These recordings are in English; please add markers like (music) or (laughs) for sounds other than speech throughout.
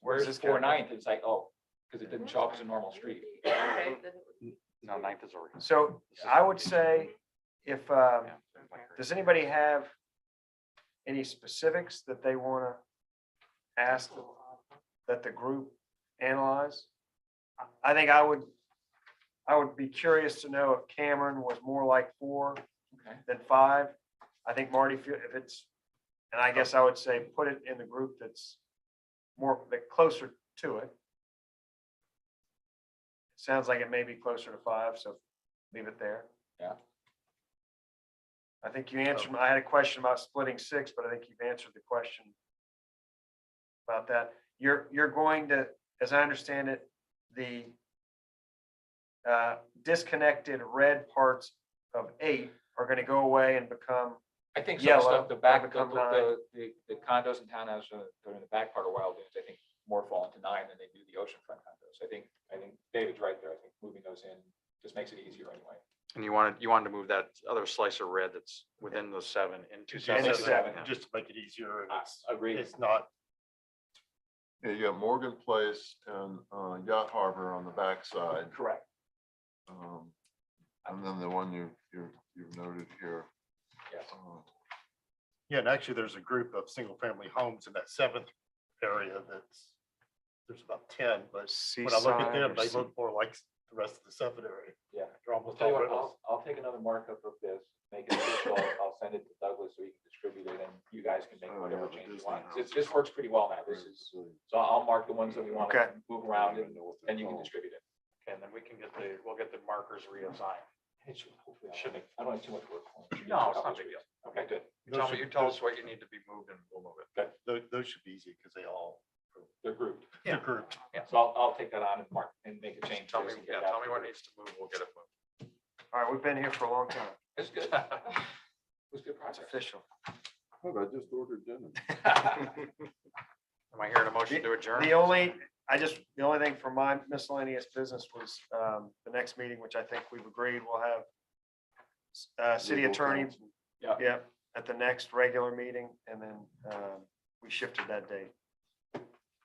where's this Four going? ninth, it's like, oh, because it didn't show up as a normal street. Okay, then it would- No, ninth is already. So this is I would already- say if, um, Yeah. does anybody have any specifics that they want to ask that the group analyze? I- I think I would, I would be curious to know if Cameron was more like four Okay. than five. I think Marty, if you- if it's, and I guess I would say put it in the group that's more, that closer to it. Sounds like it may be closer to five, so leave it there. Yeah. I think you answered, I had a question about splitting six, but I think you've answered the question about that. You're, you're going to, as I understand it, the uh, disconnected red parts of eight are gonna go away and become, I think some Yellow, stuff, the that back, the, become the, the the condos and townhouses that are in uh, the back part of Wild Dunes, I think more fall into nine than they do the oceanfront condos. I think, I think David's right there. I think moving those in just makes it easier anyway. And you wanted, you wanted to move that other slice of red that's within those seven into. In the seven. seven. Yeah. Just to make it easier, and it's, Agreed. it's not, Yeah, you got Morgan Place and uh, Yacht Harbor on the backside. Correct. um, And then the one you, you, you've noted here. Yes. um, yeah, and actually, there's a group of single-family homes in that seventh area that's, there's about ten, but when I look Seaside at or them, they sea- look more like the rest of the seventh area. Yeah. They're I'll almost tell all you what, rentals. I'll, I'll take another markup of this, make it official. I'll send it to Douglas so he can distribute it and you guys can make Oh, whatever yeah, the changes you Disney want. This, house. this works pretty well now. This is, uh, so I'll mark the ones that we want to Okay. move I don't around and even know what they're and you can called. distribute it. And then we can get the, we'll get the markers reassigned. It should, hopefully, I Should don't be. have- I don't have too much work. on it. No, it's not a big deal. Okay, good. You Tell me, you tell Those us what you need to be moved and we'll move it. Those, those should be easy, because they all, They're grouped. they're grouped. So I'll, I'll take that on and mark and make a change. Tell to this me, and get it yeah, tell out me to what you. needs to move, we'll get it moved. all right, we've been here for a long time, It's (laughs) good. It was good it's project. official. Look, I just ordered (laughs) dinner. Am I hearing a motion to adjourn? The only, I just, the only thing for my miscellaneous business was um, the next meeting, which I think we've agreed we will have uh, city Legal attorney, counsel. Yeah. yeah, at the next regular meeting, and then um, we shifted that date.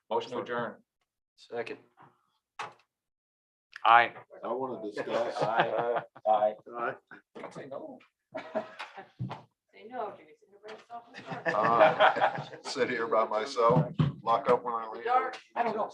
Motion to adjourn. Second. Aye. I want to discuss. Aye. Aye. Aye. Don't say no. Say no, you're gonna sit (laughs) here by yourself in the dark. Ah. Uh, Sit here by myself, lock up when I In the leave. dark. I don't know.